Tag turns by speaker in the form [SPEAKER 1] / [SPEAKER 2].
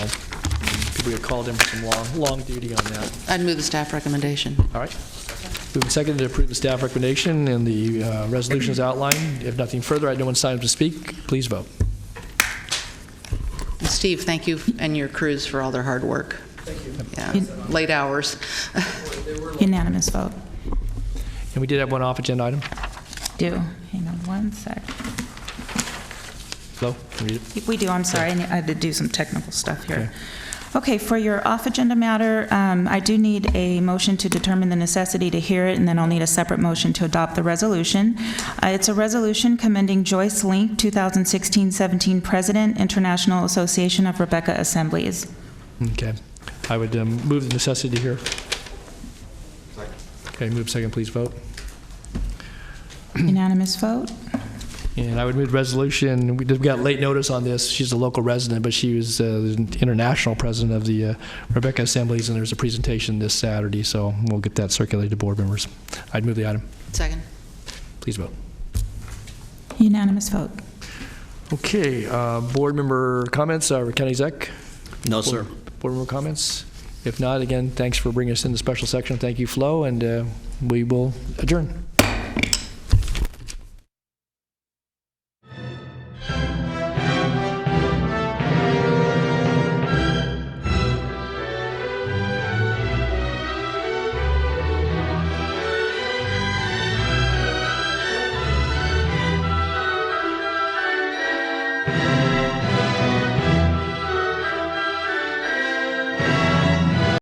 [SPEAKER 1] We had called in for some long, long duty on that.
[SPEAKER 2] I'd move the staff recommendation.
[SPEAKER 1] All right. Moving second to approve the staff recommendation and the uh, resolutions outlined. If nothing further, I know one signed up to speak. Please vote.
[SPEAKER 2] And Steve, thank you and your crews for all their hard work. Thank you. Yeah, late hours.
[SPEAKER 3] Unanimous vote.
[SPEAKER 1] And we did have one off-agenda item.
[SPEAKER 3] Do, hang on one sec.
[SPEAKER 1] Flo, can you read it?
[SPEAKER 3] We do, I'm sorry, I need- I had to do some technical stuff
[SPEAKER 1] Okay.
[SPEAKER 3] here. Okay, for your off-agenda matter, um, I do need a motion to determine the necessity to hear it, and then I'll need a separate motion to adopt the resolution. Uh, It's a resolution commending Joyce Link, 2016-17 President, International Association of Rebecca Assemblies.
[SPEAKER 1] Okay. I would um, move the necessity here. Okay, move second, please vote.
[SPEAKER 3] Unanimous vote?
[SPEAKER 1] And I would move the resolution, we did, we got late notice on this, she's a local resident, but she was uh, the international president of the uh, Rebecca Assemblies, and there's a presentation this Saturday, so we'll get that circulated to board members. I'd move the item.
[SPEAKER 2] Second.
[SPEAKER 1] Please vote.
[SPEAKER 3] Unanimous vote.
[SPEAKER 1] Okay, uh, board member comments, uh, County Exec?
[SPEAKER 4] No, sir.
[SPEAKER 1] Board member comments? If not, again, thanks for bringing us in the special section. Thank you, Flo, and uh, we will adjourn.